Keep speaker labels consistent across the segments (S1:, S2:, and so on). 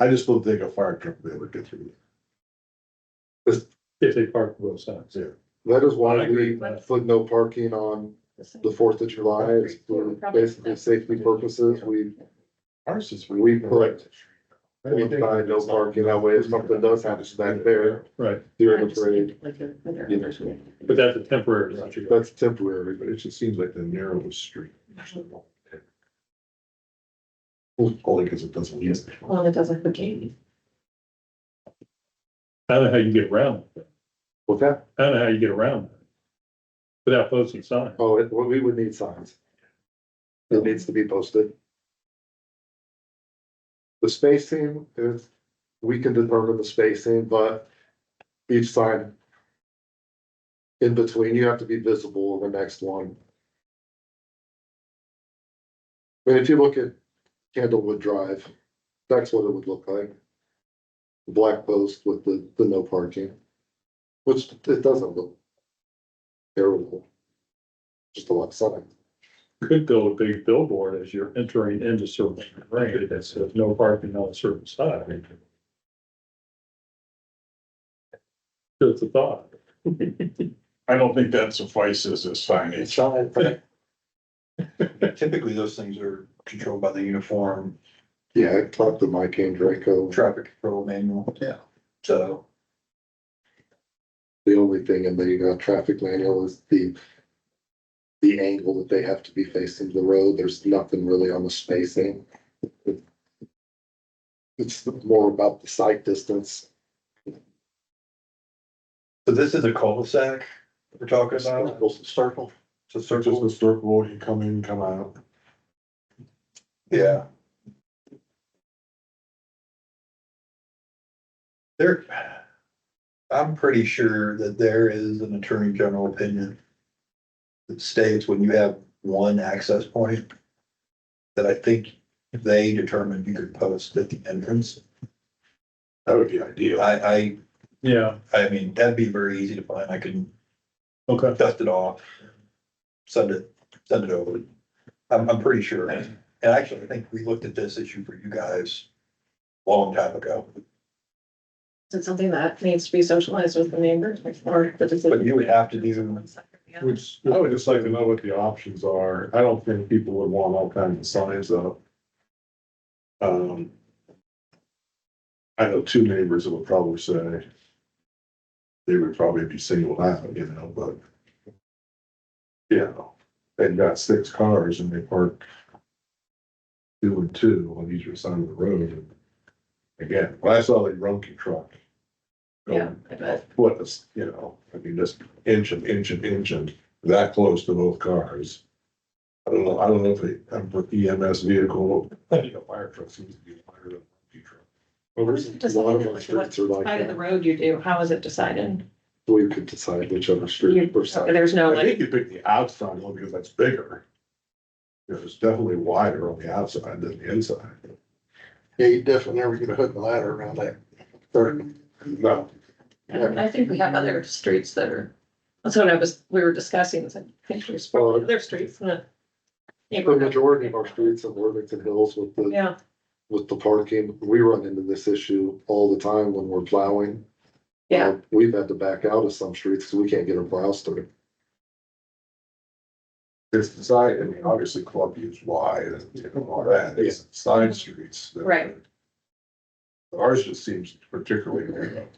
S1: I just don't think a fire truck would ever get through.
S2: if they park both sides.
S1: Yeah.
S3: That is
S2: I
S3: why
S2: agree
S3: we
S2: with that.
S3: put no parking on the Fourth of July, it's for basically safety purposes, we,
S1: Ours is.
S3: We put- we find no parking that way, if something does happen back there
S2: Right,
S3: during the parade,
S2: but that's a temporary situation.
S3: that's temporary,
S1: But it just seems like the narrowest street. Only because it doesn't use.
S4: Well, it doesn't for Katie.
S2: I don't know how you get around, it.
S3: What's that?
S2: I don't know how you get around. it Without posting signs.
S3: Oh, it, well, we would need signs. It needs to be posted. The spacing is, we can determine the spacing, but each sign. In between, you have to be visible in the next one. But if you look at Candlewood Drive, that's what it would look like. The Black post with the, the no parking. Which it doesn't look. Terrible just a lot of sun.
S2: Could build a big billboard as you're entering into certain range that says no parking on a certain side. Just a thought.
S5: I don't think that suffices as
S3: It's
S5: signage.
S3: not,
S6: Typically, those things are controlled by the uniform
S3: yeah, I talked to Mike and Draco.
S6: traffic control manual. Yeah. So,
S3: The only thing in the uh, traffic manual is the the angle that they have to be facing the road. There's nothing really on the spacing. It's more about the sight distance.
S6: so this is a cul-de-sac we're talking about,
S3: Circle. Circle.
S6: it's a
S1: It's just
S6: circle,
S1: a circle, you come in, come out.
S6: yeah. There, I'm pretty sure that there is an attorney general opinion that states when you have one access point, that I think they determined you could post at the entrance.
S1: That would be ideal.
S6: I, I
S2: Yeah,
S6: I mean, that'd be very easy to find. I can
S2: okay.
S6: dust it off. Send it, send it over. I'm, I'm pretty sure. And actually, I think we looked at this issue for you guys a long time ago,
S4: Is it something that needs to be socialized with the neighbors or the
S6: but
S4: decision?
S6: you would have to do,
S1: Which, I would just like to know what the options are. I don't think people would want all kinds of signs up. Um. I know two neighbors that would probably say. They would probably be singled out, you know, but. You know, they've got six cars and they park. Two and two on each side of the road. Again, when I saw the Rumpke truck.
S4: Yeah, I
S1: going
S4: bet.
S1: What is, you know, I mean, just inch and inch and inch and that close to both cars. I don't know, I don't know if they, I'm with EMS vehicle, I think a fire truck seems to be higher than a Rumpke truck.
S3: Well, there's a lot of our streets are like
S4: Side of the
S3: that.
S4: road you do, how is it decided?
S3: We could decide which other
S4: You-
S3: street we're side.
S4: There's no
S1: I
S4: like,
S1: think you pick the outside one because that's bigger. You know, It's definitely wider on the outside than the inside.
S3: Yeah, you definitely never get a hook and ladder around that. Or-
S1: No.
S4: I think we have other streets that are, that's what I was, we were discussing, it's like, I think there's probably other streets in the
S3: The
S4: neighborhood.
S3: majority of our streets in Worthington Hills with the
S4: Yeah,
S3: with the parking, we run into this issue all the time when we're plowing.
S4: yeah,
S3: Um, We've had to back out of some streets because we can't get our plows through.
S1: It's the side, I mean, obviously club is wide and you know, all that, it's side streets. that-
S4: Right.
S1: Ours just seems particularly, narrow.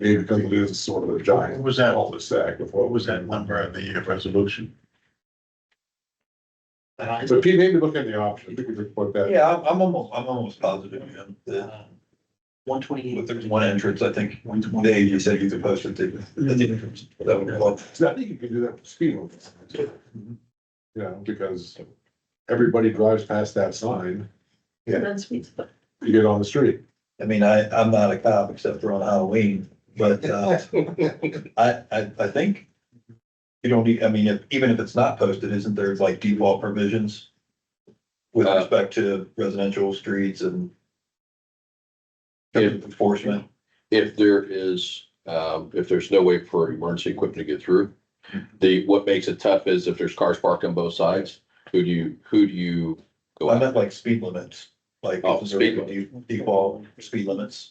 S1: maybe because it is sort of a giant.
S5: What was that?
S1: Cul-de-sac with
S5: What was that number on the resolution?
S6: and I,
S1: So Pete, maybe look at the option, I think we could put that.
S6: yeah, I'm, I'm almost, I'm almost positive, you know, that
S7: Uh, One twenty-eight.
S6: if there's one entrance, I think, Dave, you said you could post it to, at the entrance. That would be helpful.
S1: So I think you can do that for speed limits. You
S5: Mm-hmm.
S1: know, because everybody drives past that sign,
S4: and then speeds, but
S1: you get on the street.
S6: I mean, I, I'm not a cop except for on Halloween, but, uh, I, I, I think you don't need, I mean, if, even if it's not posted, isn't there like default provisions with
S8: Uh,
S6: respect to residential streets and
S8: If-
S6: enforcement?
S8: if there is, um, if there's no way for emergency equipment to get through. The, what makes it tough is if there's cars parked on both sides, who do you, who do you go
S6: I
S8: out?
S6: meant like speed limits. like
S8: Oh,
S6: is there
S8: speed
S6: a de- default speed limits.